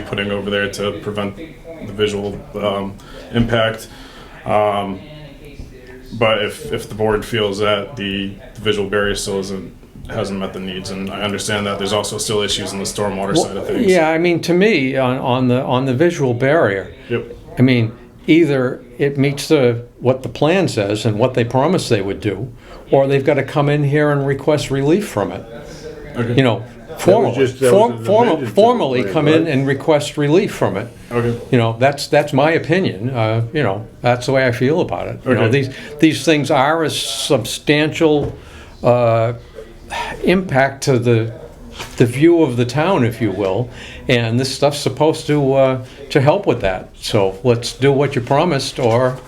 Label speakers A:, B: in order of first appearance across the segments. A: putting over there to prevent the visual um, impact. Um, but if, if the board feels that the visual barrier still isn't, hasn't met the needs, and I understand that there's also still issues in the stormwater side of things.
B: Yeah, I mean, to me, on, on the on the visual barrier,
A: Yep.
B: I mean, either it meets the what the plan says and what they promised they would do, or they've got to come in here and request relief from it.
A: Okay.
B: You know, formally,
C: just- that
B: form,
C: was an
B: form,
C: amended to the
B: formally
C: plan,
B: come in
C: right?
B: and request relief from it.
A: Okay.
B: You know, that's that's my opinion. Uh, you know, that's the way I feel about it. You know,
A: Okay.
B: these these things are a substantial uh, impact to the the view of the town, if you will, and this stuff's supposed to uh, to help with that. So let's do what you promised, or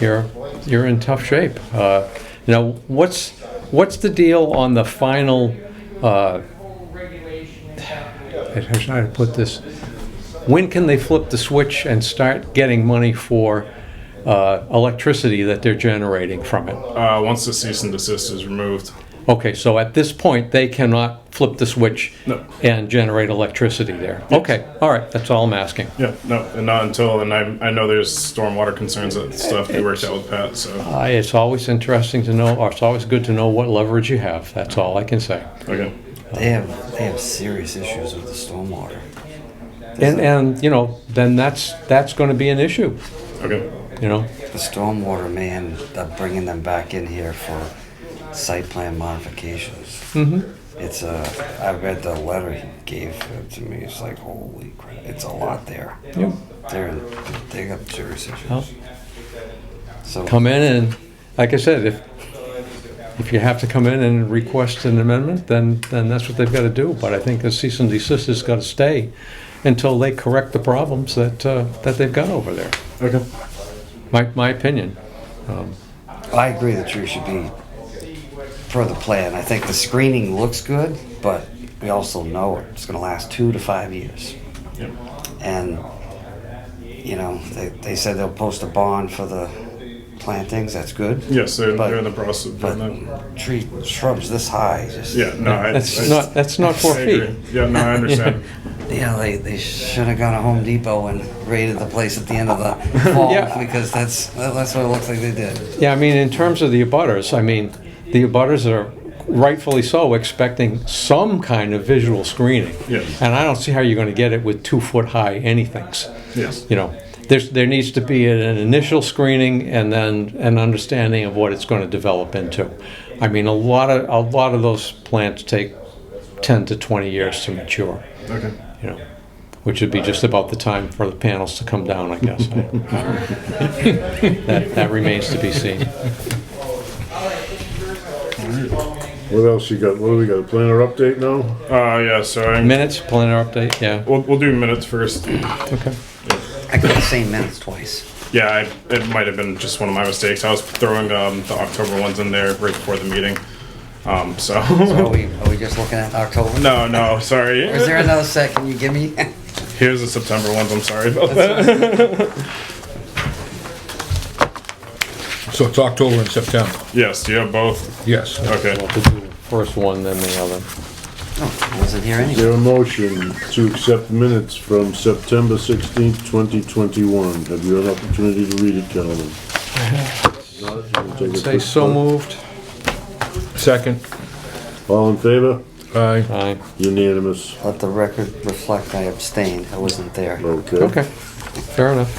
B: you're you're in tough shape. Uh, you know, what's what's the deal on the final? Uh, I don't know how to put this. When can they flip the switch and start getting money for uh, electricity that they're generating from it?
A: Uh, once the cease and desist is removed.
B: Okay, so at this point, they cannot flip the switch
A: No.
B: and generate electricity there. Okay, all right, that's all I'm asking.
A: Yeah, no, and not until, and I, I know there's stormwater concerns that stuff we worked out with Pat, so,
B: Uh, it's always interesting to know, or it's always good to know what leverage you have. That's all I can say.
A: okay.
D: They have they have serious issues with the stormwater.
B: And and you know, then that's that's going to be an issue.
A: Okay.
B: You know,
D: The stormwater may end up bringing them back in here for site plan modifications. Mm-hmm. It's a. I read the letter he gave to me. It's like holy crap. It's a lot there.
B: Yeah.
D: They're they got serious issues.
B: Well,
D: so
B: come in and, like I said, if if you have to come in and request an amendment, then then that's what they've got to do. But I think the cease and desist has got to stay until they correct the problems that uh, that they've got over there.
A: Okay.
B: My my opinion. Um,
D: I agree the tree should be for the plan. I think the screening looks good, but we also know it's going to last two to five years.
A: Yep.
D: And, you know, they, they said they'll post a bond for the plantings, that's good.
A: Yes, they're,
D: But-
A: they're in the process of doing that.
D: But tree shrubs this high, just,
A: Yeah,
D: you
A: no, I.
B: that's
A: I-
B: not that's not four
A: I agree.
B: feet.
A: Yeah, no, I understand.
D: know, they, they should have gone to Home Depot and raided the place at the end of the fall
B: Yeah.
D: because that's, that's what it looks like they did.
B: Yeah, I mean, in terms of the abutters, I mean, the abutters are rightfully so expecting some kind of visual screening.
A: Yes.
B: And I don't see how you're going to get it with two foot high anythings.
A: Yes.
B: You know, there's, there needs to be an initial screening and then an understanding of what it's going to develop into. I mean, a lot of, a lot of those plants take 10 to 20 years to mature,
A: Okay.
B: you know, which would be just about the time for the panels to come down, I guess. that, that remains to be seen.
C: What else you got? What do we got? A planner update now?
A: Uh, yeah, so I'm,
B: Minutes, planner update, yeah.
A: we'll, we'll do minutes first.
B: Okay.
D: I got the same minutes twice.
A: Yeah, I, it might have been just one of my mistakes. I was throwing, um, the October ones in there right before the meeting. Um, so,
D: Are we, are we just looking at October?
A: no, no, sorry.
D: Is there another second you give me?
A: Here's the September ones, I'm sorry about that.
E: So it's October and September,
A: Yes, do you have both?
E: yes.
A: Okay.
B: We'll do the First one, then the other.
D: Oh, I wasn't here
C: Is
D: anyway.
C: there a motion to accept minutes from September sixteenth, twenty twenty-one? Have you had an opportunity to read it, gentlemen? Not? You can take a
B: Say
C: quick
B: so
C: vote.
B: moved.
E: Second,
C: All in favor?
E: aye.
B: Aye.
C: Unanimous.
D: Let the record reflect I abstained. I wasn't there.
C: Okay.
B: Okay, fair enough.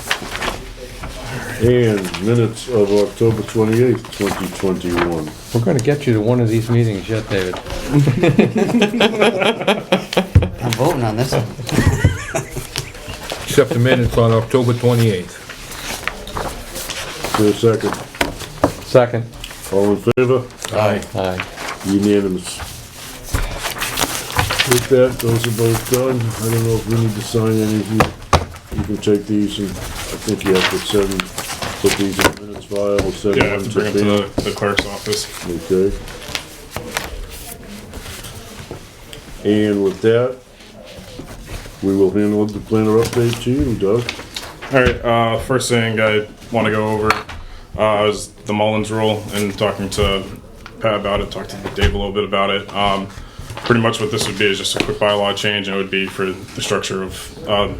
C: And minutes of October twenty-eighth, twenty twenty-one.
B: We're gonna get you to one of these meetings yet, David.
D: I'm voting on this one.
E: Accept the minutes on October 28th.
C: Is there a second?
B: Second.
C: All in favor?
E: Aye.
B: Aye.
C: Unanimous. With that, those are both done. I don't know if we need to sign any of you. You can take these and I think you have to send, put these in the minutes file, we'll send
A: Yeah, I have
C: one
A: to bring
C: to
A: them to
C: them.
A: the, the clerk's office.
C: Okay. And with that, we will handle the planner update to you, Doug.
A: All right. Uh, first thing I want to go over uh, is the Mullins rule, and talking to Pat about it, talked to Dave a little bit about it. Um, pretty much what this would be is just a quick bylaw change, and it would be for the structure of uh,